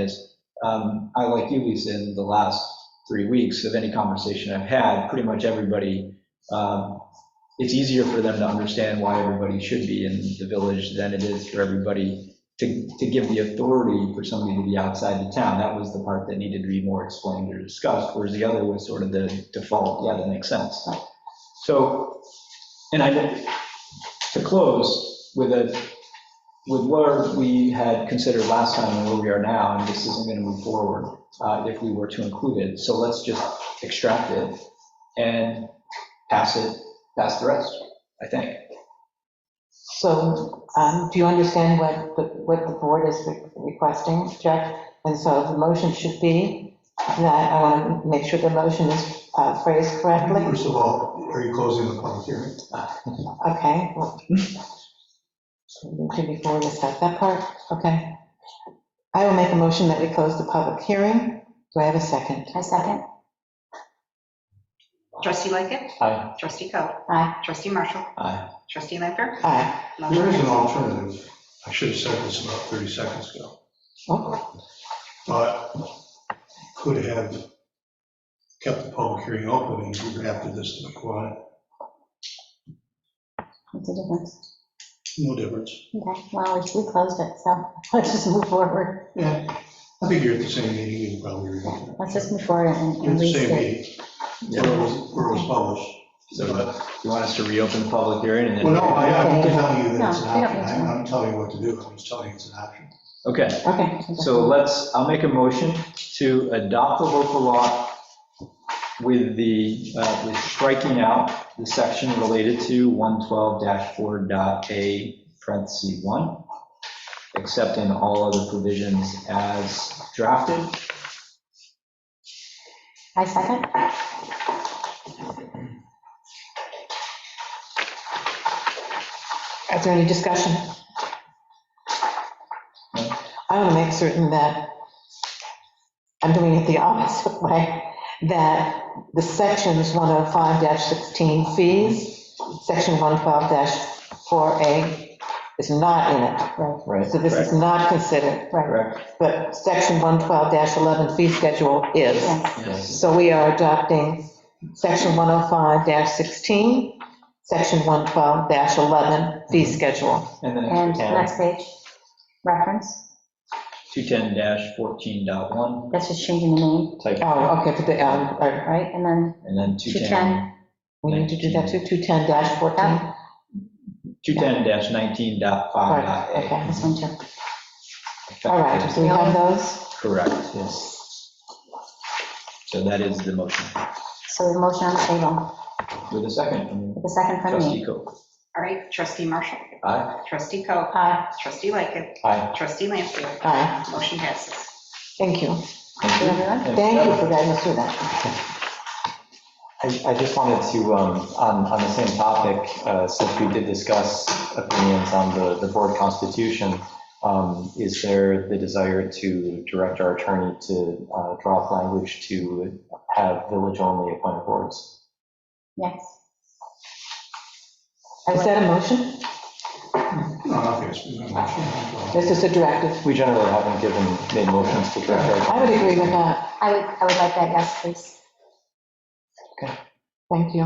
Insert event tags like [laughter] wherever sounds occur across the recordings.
is, um, I, like you, Lisa, in the last three weeks of any conversation I've had, pretty much everybody, um, it's easier for them to understand why everybody should be in the village than it is for everybody to, to give the authority for somebody to be outside the town. That was the part that needed to be more explained or discussed, whereas the other was sort of the default, yeah, that makes sense. So, and I, to close with a, with where we had considered last time and where we are now, and this isn't going to move forward uh, if we were to include it. So let's just extract it and pass it, pass the rest, I think. So, um, do you understand what the, what the board is requesting, Jack? And so the motion should be, that I want to make sure the motion is uh, phrased correctly. First of all, are you closing the public hearing? Okay. well, okay, Before we start that part, okay. I will make a motion that we close the public hearing. Do I have a second? A second. Trustee Lickett, Aye. trustee Coe, Aye. trustee Marshall, Aye. trustee Lanfair. Aye. There Motion is an passes. alternative. I should have said this about 30 seconds ago, Oh, but could have kept the public hearing open and you drafted this to the quad, What's the difference? no difference. Okay, well, we we closed it, so [laughs] let's just move forward. Yeah, I think you're at the same meeting, you can probably remember. Let's just move forward and You're at and the read same it. meeting, where it was, where it was published. So you want us to reopen the public hearing and then? Well, no, I, I'm telling you that it's an No, we don't need option, to. I'm not telling you what to do, I'm just telling you it's an option. Okay. Okay, So let's, I'll make a motion to adopt the local law with the, uh, with striking out the section related to 112-4.a, parentheses 1, except in all other provisions as drafted. I second. is there any discussion? I want to make certain that I'm doing it the [laughs] opposite way, that the sections 105-16 fees, section 112-4A is not in it. Right. So this is not considered, Right, Correct? but section 112-11 fee schedule is. yes. Yes. So we are adopting section 105-16, section 112-11 fee Mhm. schedule. And then And it's next page, reference, 210-14.1, that's just changing the name, type, Oh, okay, but the, um, all right, right? And then and then 210, 210. we need to do that too, 210-14. Right, 210-19.5.a. okay. this one too. All right, so we have those. Correct, yes. So that is the motion. So the motion on the table, With a second from with the second from trustee me. Coe. All right, trustee Marshall, Aye. trustee Coe, Aye. trustee Lickett, Aye. trustee Lanfair. Aye, Motion passes. thank you. Thank you, everyone. Thank you for guiding us through that. I I just wanted to, um, on on the same topic, uh, since we did discuss opinions on the the board constitution, um, is there the desire to direct our attorney to uh, draw up language to have village-only appointed boards? Yes. Is that a motion? No, I think it's been an option. This is a directive. We generally haven't given, made motions to direct our. I would agree with that, I would, I would like that, yes, please. thank you.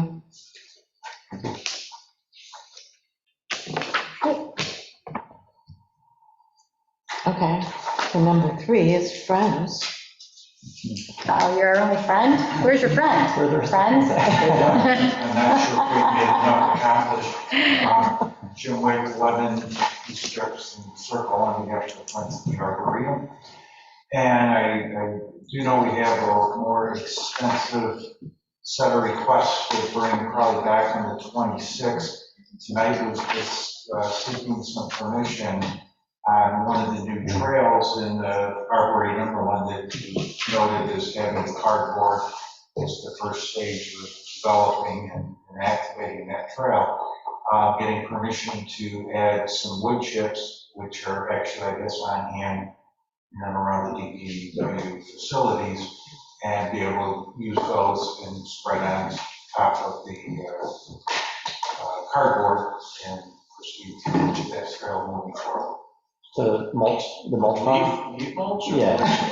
Okay, so number three is friends. Oh, you're our only friend? Where's your friend? Friends? [laughs] I'm not sure if we made enough [laughs] accomplished. Um, Jim White, Levin, East Jefferson Circle, on the actual plants of the Arboretum. And I, I do know we have a more extensive set of requests to bring probably back on the 26th. Tonight was just uh, seeking some permission on one of the new trails in the Arboretum, the one that you noted as having cardboard is the first stage of developing and and activating that trail, uh, getting permission to add some wood chips, which are actually, I guess, on hand in and around the DPW facilities, and be able to use those and spread on top of the uh, uh, cardboard and proceed to that trail moving forward. The mulch, the mulch pile? Leaf, leaf mulch? or- Yeah.